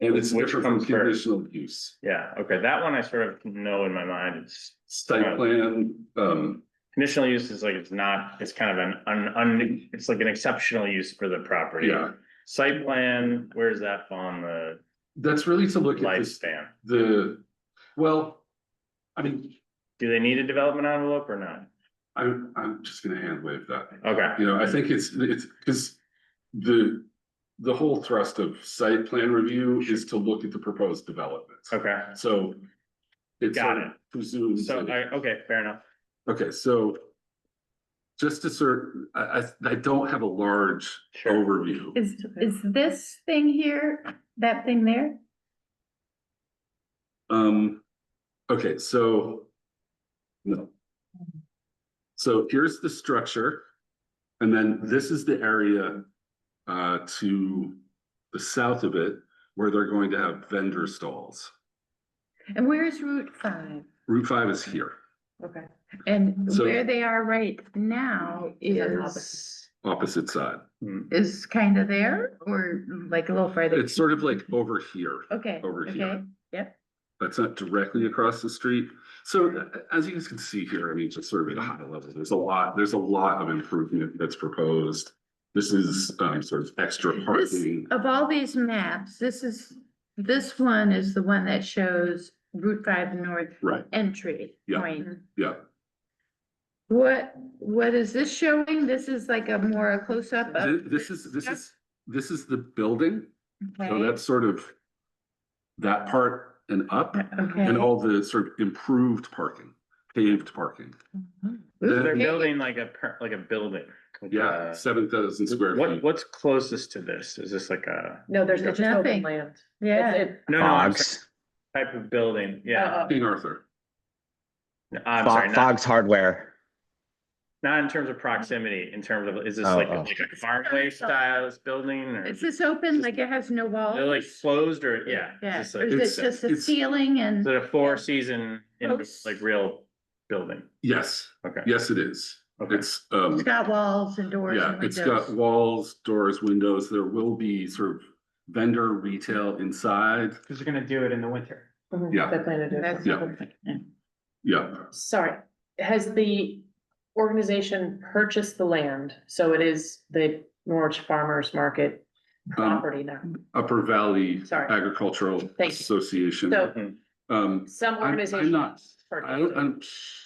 It It's was which different comes from first. conditional use, Yeah, okay, that one I sort of know in my mind, it's site Right. plan, um, conditional use is like, it's not, it's kind of an un, un, it's like an exceptional use for the property. yeah. Site plan, where's that on the That's really to look at this, lifespan? the, well, I mean, Do they need a development envelope or not? I'm, I'm just gonna hand wave that. Okay, You know, I think it's, it's, because the, the whole thrust of site plan review is to look at the proposed development. okay, So. it's Got sort of presumes so, that it- I, okay, fair enough, Okay, so. Just to sort, I, I, I don't have a large sure. overview. Is, is this thing here, that thing there? Um, okay, so. No. So here's the structure. And then this is the area, uh, to the south of it where they're going to have vendor stalls. And where's Route five? Route five is here, Okay. And So- where they are right now is, opposite side. is kind of there or like a little farther? It's sort of like over here. Okay, over here. okay, That's not directly across the street. So uh, as you guys can see here, I mean, just sort of at a high level, there's a lot, there's a lot of improvement that's proposed. This is um sort of extra parking. of all these maps, this is, this one is the one that shows Route five north Right, entry Yeah. point. yeah. What, what is this showing? This is like a more a close-up Th- of. This is, this is, this is the building. So Okay, that's sort of that part and up and Okay. all the sort of improved parking, paved parking. Ooh, They're okay. building like a, per- like a building. like Yeah, a- seven thousand square What, feet. what's closest to this? Is this like a? No, there's There's just open nothing. land. Yeah. It's- it- No, no, I'm sorry, type of building, yeah. uh, uh, King Arthur. No, I'm sorry, Fog, not, Fog's Hardware. not in terms of proximity, in terms of, is this Oh, like, oh. like a farmway style building or? Is this open, like it has no walls? They're like closed or, yeah. Yeah, Is this or like, It's- is it just a it's- ceiling is and, it a four season, in- Close. like real building? Yes, Okay. yes, it is. Okay. It's um. it's got walls and doors Yeah, and it's got windows? walls, doors, windows. There will be sort of vendor retail inside. Cause they're gonna do it in the winter. mhm, Yeah. they plan to do it. That's- Yeah. Yeah, Sorry, has the organization purchased the land? So it is the Norwich Farmers Market Um, property now. Upper Valley Sorry. Agricultural you. Association. So Um, some I'm, organization. I'm not, I purchased don't, it. I'm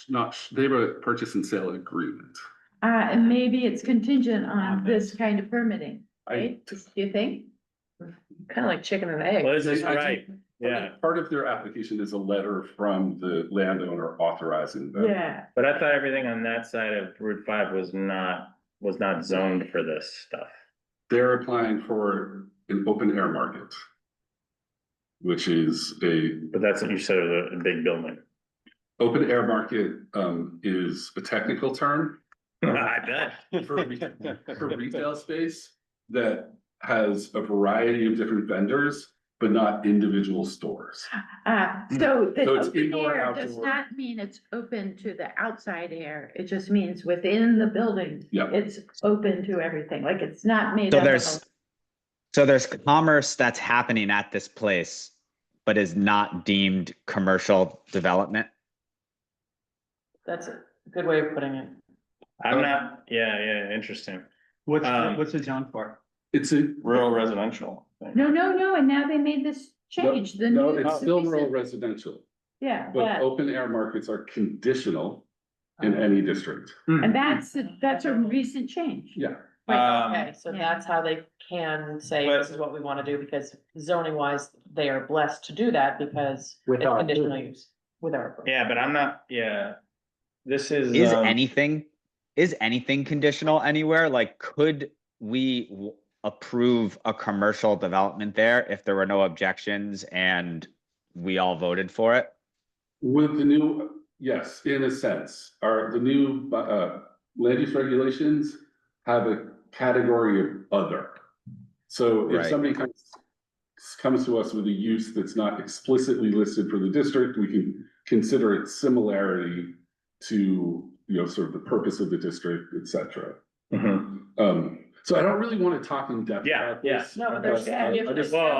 not, sh- they have a purchase and sale agreement. Uh, and maybe it's contingent on this kind of permitting, I, right? Do you think? Kind of like chicken and egg. Well, this is I- I right, yeah, part of their application is a letter from the landowner authorizing them. Yeah. but I thought everything on that side of Route five was not, was not zoned for this stuff. They're applying for an open air market. Which is a But that's what you said, was a a big building. Open air market um is a technical term I bet. for retail, for retail space that has a variety of different vendors, but not individual stores. Uh, so the Hmm. So it's open indoor, air does outdoor. not mean it's open to the outside air. It just means within the building. Yeah. It's open to everything, like it's not made So up of. there's, so there's commerce that's happening at this place, but is not deemed commercial development. That's a good way of putting it. I'm not, yeah, yeah, interesting. What's, the- Um, what's it zoned for? It's a. Rural residential. thing. No, no, no, and now they made this change, the No, new- it's still rural recent- residential, Yeah, but but, open air markets are conditional in Uh-huh. any district. and that's, that's a recent change. Yeah. Um, Okay, so yeah. that's how they can say But- this is what we want to do because zoning wise, they are blessed to do that because With it's our conditional use with our. approval. Yeah, but I'm not, yeah. This is. Is um, anything, is anything conditional anywhere? Like, could we w- approve a commercial development there if there were no objections and we all voted for it? With the new, yes, in a sense, are the new uh land use regulations have a category of other. So if Right. somebody comes comes to us with a use that's not explicitly listed for the district, we can consider its similarity to, you know, sort of the purpose of the district, et cetera. mhm. Um, so I don't really want to talk in depth. Yeah, about yeah. this, No, but there's- because I- I if just- Well,